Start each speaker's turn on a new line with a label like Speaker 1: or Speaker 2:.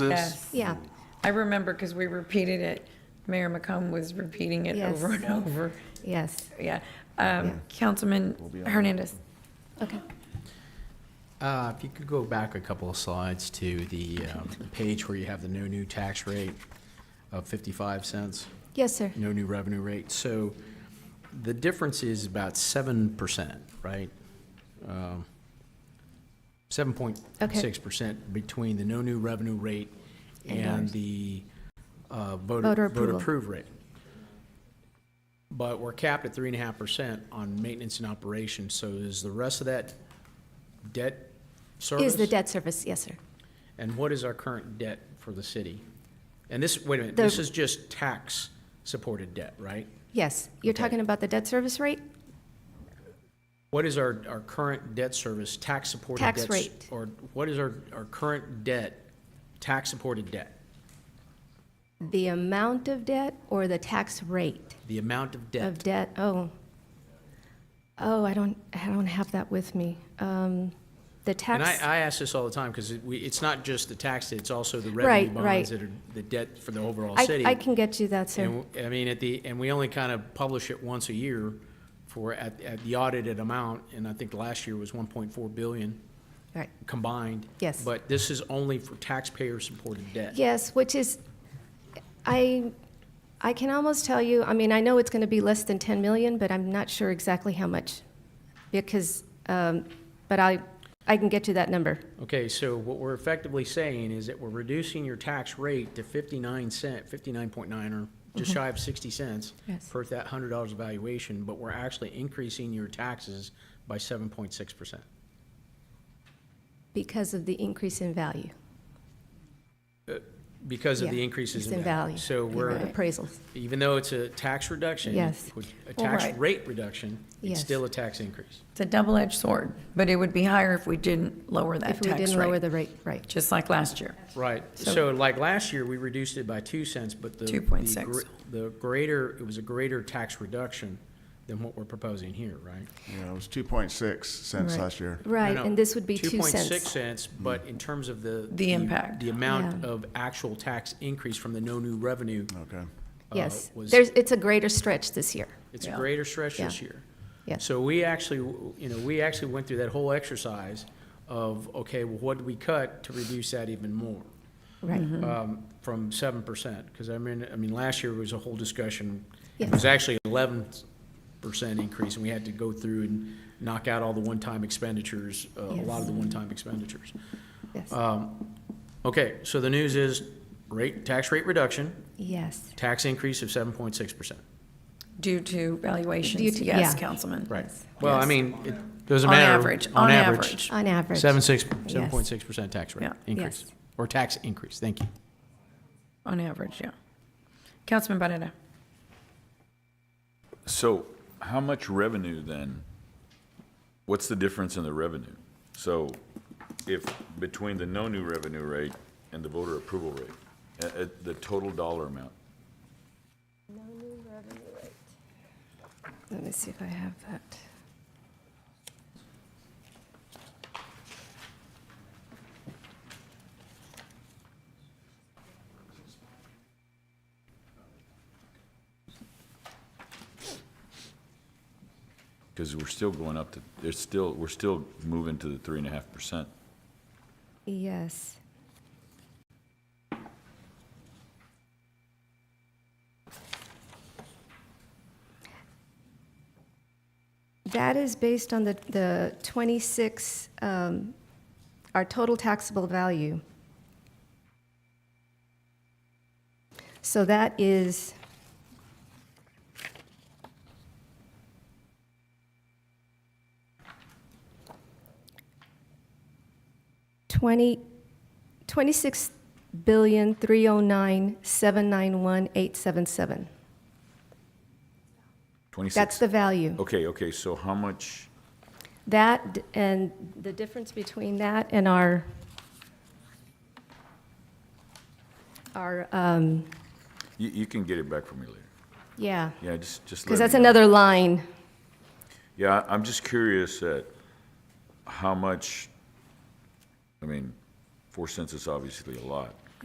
Speaker 1: Yes.
Speaker 2: Yeah,
Speaker 1: I remember because we repeated it. Mayor McComb was repeating it
Speaker 2: Yes.
Speaker 1: over and over.
Speaker 2: yes,
Speaker 1: Yeah. Um, Councilman Hernandez.
Speaker 2: okay.
Speaker 3: Uh, If you could go back a couple of slides to the um, page where you have the no new tax rate of 55 cents,
Speaker 2: Yes, sir.
Speaker 3: no new revenue rate. So the difference is about 7%, right? Um, 7.6% between the no new revenue rate and the uh,
Speaker 2: Voter
Speaker 3: voter voter
Speaker 2: approval.
Speaker 3: approved rate. But we're capped at 3.5% on maintenance and operations, so is the rest of that debt service?
Speaker 2: Is the debt service, yes, sir.
Speaker 3: And what is our current debt for the city? And this, wait a minute,
Speaker 2: The-
Speaker 3: this is just tax-supported debt, right?
Speaker 2: Yes, you're
Speaker 3: Okay.
Speaker 2: talking about the debt service rate?
Speaker 3: What is our, our current debt service, tax-supported debt?
Speaker 2: Tax rate.
Speaker 3: Or what is our, our current debt, tax-supported debt?
Speaker 2: The amount of debt or the tax rate
Speaker 3: The amount of
Speaker 2: of
Speaker 3: debt?
Speaker 2: debt? Oh. Oh, I don't, I don't have that with me. Um, The
Speaker 3: And I,
Speaker 2: tax,
Speaker 3: I ask this all the time, because we, it's not just the tax, it's also the revenue
Speaker 2: Right, right.
Speaker 3: bonds that are the debt for the overall
Speaker 2: I,
Speaker 3: city.
Speaker 2: I can get you that, sir.
Speaker 3: And, w- I mean, at the, and we only kind of publish it once a year for, at, at the audited amount, and I think last year was 1.4 billion.
Speaker 2: Right.
Speaker 3: combined.
Speaker 2: Yes.
Speaker 3: But this is only for taxpayer-supported debt.
Speaker 2: Yes, which is, I, I can almost tell you, I mean, I know it's going to be less than 10 million, but I'm not sure exactly how much, because, um, but I, I can get you that number.
Speaker 3: Okay, so what we're effectively saying is that we're reducing your tax rate to 59 cent, 59.9 or just shy of 60 cents
Speaker 2: Yes.
Speaker 3: per that $100 valuation, but we're actually increasing your taxes by 7.6%.
Speaker 2: Because of the increase in value,
Speaker 3: Because of
Speaker 2: Yeah,
Speaker 3: the increases
Speaker 2: it's
Speaker 3: in value. So we're,
Speaker 1: Right.
Speaker 2: appraisals.
Speaker 3: even though it's a tax reduction,
Speaker 2: Yes.
Speaker 3: which- a
Speaker 1: Well,
Speaker 3: tax
Speaker 1: right.
Speaker 3: rate reduction, it's
Speaker 2: Yes.
Speaker 3: still a tax increase.
Speaker 1: It's a double-edged sword, but it would be higher if we didn't lower that
Speaker 2: If we
Speaker 1: tax
Speaker 2: didn't lower
Speaker 1: rate,
Speaker 2: the rate, right.
Speaker 1: just like last year.
Speaker 3: Right,
Speaker 1: So-
Speaker 3: so like last year, we reduced it by two cents, but the. the
Speaker 1: 2.6.
Speaker 3: gr- The greater, it was a greater tax reduction than what we're proposing here, right?
Speaker 4: Yeah, it was two point six cents
Speaker 2: Right.
Speaker 4: last year.
Speaker 2: Right,
Speaker 3: No, no,
Speaker 2: and this would be two
Speaker 3: Two point six
Speaker 2: cents.
Speaker 3: cents, but in terms of the.
Speaker 1: impact.
Speaker 3: The amount
Speaker 2: Yeah.
Speaker 3: of actual tax increase from the no new revenue.
Speaker 4: Okay.
Speaker 3: uh,
Speaker 2: Yes,
Speaker 3: was-
Speaker 2: there's, it's a greater stretch this year,
Speaker 3: It's a
Speaker 1: Yeah.
Speaker 3: greater stretch
Speaker 2: Yeah.
Speaker 3: this year.
Speaker 2: yes.
Speaker 3: So we actually, you know, we actually went through that whole exercise of, okay, well, what do we cut to reduce that even more?
Speaker 2: Right,
Speaker 3: um, from seven percent, because I mean, I mean, last year was a whole discussion. It
Speaker 2: Yeah.
Speaker 3: was actually eleven percent increase, and we had to go through and knock out all the one-time expenditures, uh, a lot of the one-time expenditures.
Speaker 2: yes,
Speaker 3: Okay, so the news is rate, tax rate reduction,
Speaker 2: yes,
Speaker 3: tax increase of seven point six percent.
Speaker 1: Due to
Speaker 2: Due
Speaker 1: valuations, yes,
Speaker 2: to- yeah.
Speaker 1: Councilman.
Speaker 3: Well, I
Speaker 1: Yes.
Speaker 3: mean, it doesn't
Speaker 1: On
Speaker 3: matter.
Speaker 1: average, on average.
Speaker 2: on average.
Speaker 3: Seven six,
Speaker 2: Yes.
Speaker 3: seven point six percent tax rate
Speaker 1: Yeah.
Speaker 3: increase,
Speaker 2: Yes.
Speaker 3: or tax increase, thank you.
Speaker 1: On average, yeah. Councilman Barrera.
Speaker 5: So how much revenue then? What's the difference in the revenue? So if, between the no new revenue rate and the voter approval rate, at, at the total dollar amount?
Speaker 2: Let me see if I have that.
Speaker 5: Because we're still going up to, there's still, we're still moving to the three and a half percent.
Speaker 2: Yes. That is based on the, the 26, um, our total taxable value. So that is, Twenty, twenty-six billion three hundred nine seven nine one eight seven seven. That's
Speaker 5: Twenty-six?
Speaker 2: the value.
Speaker 5: Okay, okay, so how much,
Speaker 2: That, d- and the difference between that and our, our, um,
Speaker 5: you, you can get it back from me later.
Speaker 2: yeah,
Speaker 5: Yeah, just, just.
Speaker 2: because
Speaker 5: let
Speaker 2: that's
Speaker 5: me know.
Speaker 2: another line.
Speaker 5: Yeah, I- I'm just curious at how much, I mean, four cents is obviously a lot,